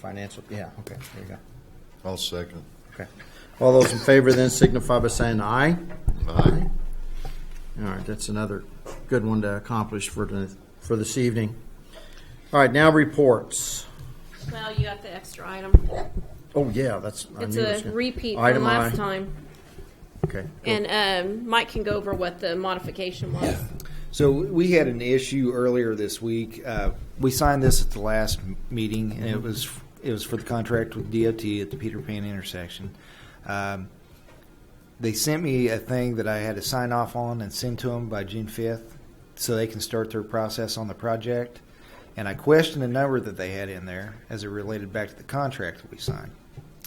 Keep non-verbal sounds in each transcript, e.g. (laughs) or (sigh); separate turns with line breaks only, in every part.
financial, yeah, okay, there you go.
I'll second.
Okay. All those in favor then signify by saying aye.
Aye.
All right, that's another good one to accomplish for, the- for this evening. All right, now reports.
Well, you got the extra item.
Oh, yeah, that's. I
It's
knew it was
a
gonna-
repeat
Item
from last
I.
time.
Okay.
And um, Mike can go over what the modification was.
So we had an issue earlier this week. Uh, we signed this at the last m- meeting, and it was it was for the contract with DOT at the Peter Pan intersection. Um, they sent me a thing that I had to sign off on and send to them by June fifth, so they can start their process on the project. And I questioned a number that they had in there as it related back to the contract that we signed.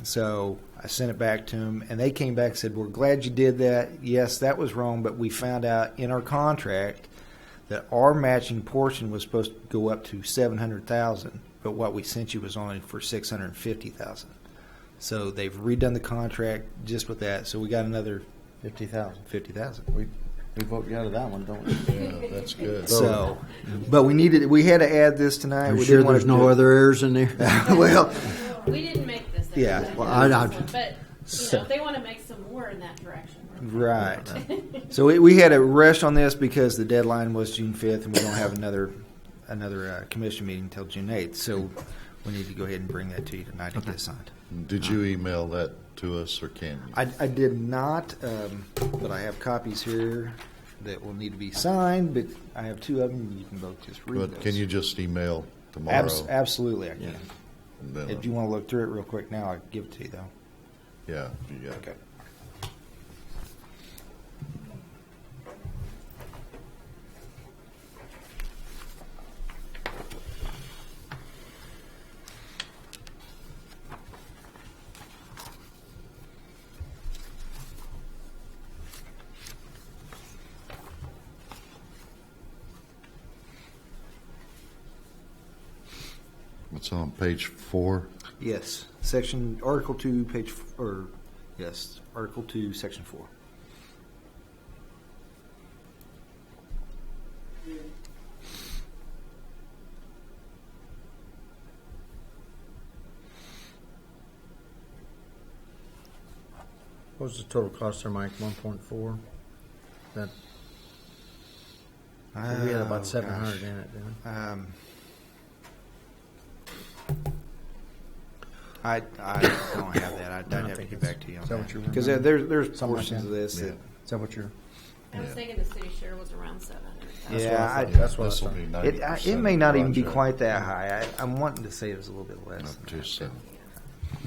So I sent it back to them, and they came back and said, "We're glad you did that. Yes, that was wrong, but we found out in our contract that our matching portion was supposed to go up to seven hundred thousand, but what we sent you was only for six hundred fifty thousand. So they've redone the contract just with that. So we got another
Fifty thousand.
fifty thousand.
We, we vote you out of that one, don't (laughs) we?
Yeah, that's good.
So, but we needed we had to add this tonight.
Are
we
you sure
didn't want
there's
to
no
do it.
other errors in (laughs) there?
(laughs) well,
We didn't make this.
Yeah,
exercise.
well,
I- I-
But, you know, if they want to make some more in that direction.
right. So we, we had a rush on this because the deadline was June fifth, and we don't have another another uh, commission meeting until June eighth. So we need to go ahead and bring that to you tonight and get it signed.
Did you email that to us, or can you?
I, I did not, um, but I have copies here that will need to be signed, but I have two of them. You can both just read
But
those.
can you just email
Abs-
tomorrow?
absolutely, I can.
and then-
If you want to look through it real quick now, I'll give it to you, though.
Yeah, you got it. It's on page four.
Yes, section, Article 2, page, f- or, yes, Article 2, section 4.
What was the total cost there, Mike? One point four? That, we had
Oh,
about
gosh.
seven hundred in it, didn't
Um, I, I don't have that. I'd,
No, I
I'd have to
think
get
it's-
back to you on
is that what you
Because
remember?
there, there's
Something like
portions
that.
of this that
we? Is that what you're?
I was
Yeah.
thinking the city share was around seven hundred thousand.
Yeah,
I thought.
I-
That's what I
This will
thought.
be
It, I,
90%
it may
of the
not even be
project.
quite that high. I, I'm wanting to say it was a little bit less.
Up to seven.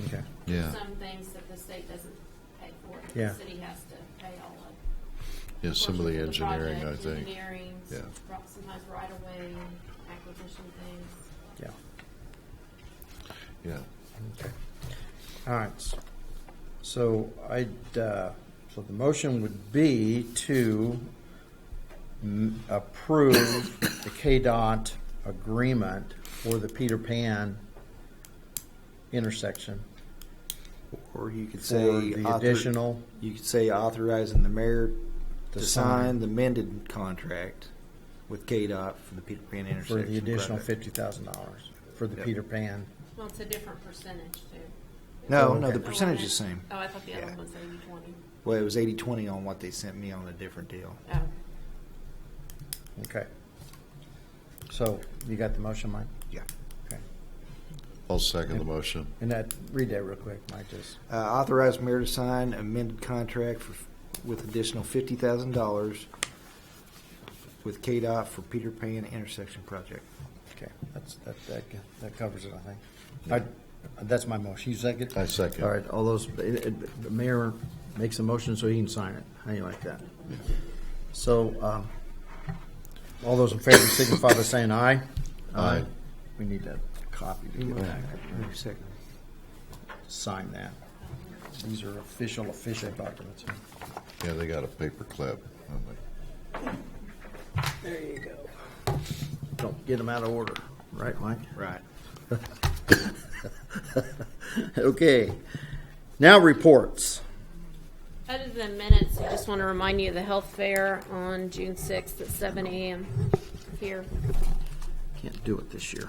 Okay.
Yeah,
Some things that the state doesn't pay for, that
Yeah.
the city has to pay all of.
yeah, some of the
Portions
engineering, I
project,
think.
Engineering,
Yeah.
ro- sometimes right away, acquisition things.
Yeah.
Yeah.
Okay. All right. So I'd, uh, so the motion would be to m- approve the KDOT agreement for the Peter Pan intersection
Or you could
for
say
the
author-
additional,
You could say authorizing the mayor
To
to
sign.
sign the amended contract with KDOT for the Peter Pan
for
intersection.
the additional
project.
fifty thousand dollars for the
Yep.
Peter Pan.
Well, it's a different percentage too.
No,
Oh,
no,
okay.
the percentage is the same.
Oh, I thought the other
Yeah.
one was eighty twenty.
Well, it was 80-20 on what they sent me on a different deal.
Oh,
Okay. So you got the motion, Mike?
Yeah.
Okay.
I'll second the motion.
And that, read that real quick, Mike, just.
Uh, authorize mayor to sign amended contract for, with additional fifty thousand dollars with KDOT for Peter Pan intersection project.
Okay, that's, that, that, that covers it, I think. I, that's my motion, you second?
I second.
All right, all those, it- it- the mayor makes a motion so he can sign it, how you like that? So, um, all those in favor signify by saying aye.
Aye.
We need that copy to get back,
Wait a second.
sign that. These are official, official documents.
Yeah, they got a paper clip. Oh, I'm like,
there you go.
Don't get them out of order, right, Mike?
Right.
(laughs) Okay, now reports.
Other than minutes, I just want to remind you of the health fair on June sixth at seven AM here.
Can't do it this year.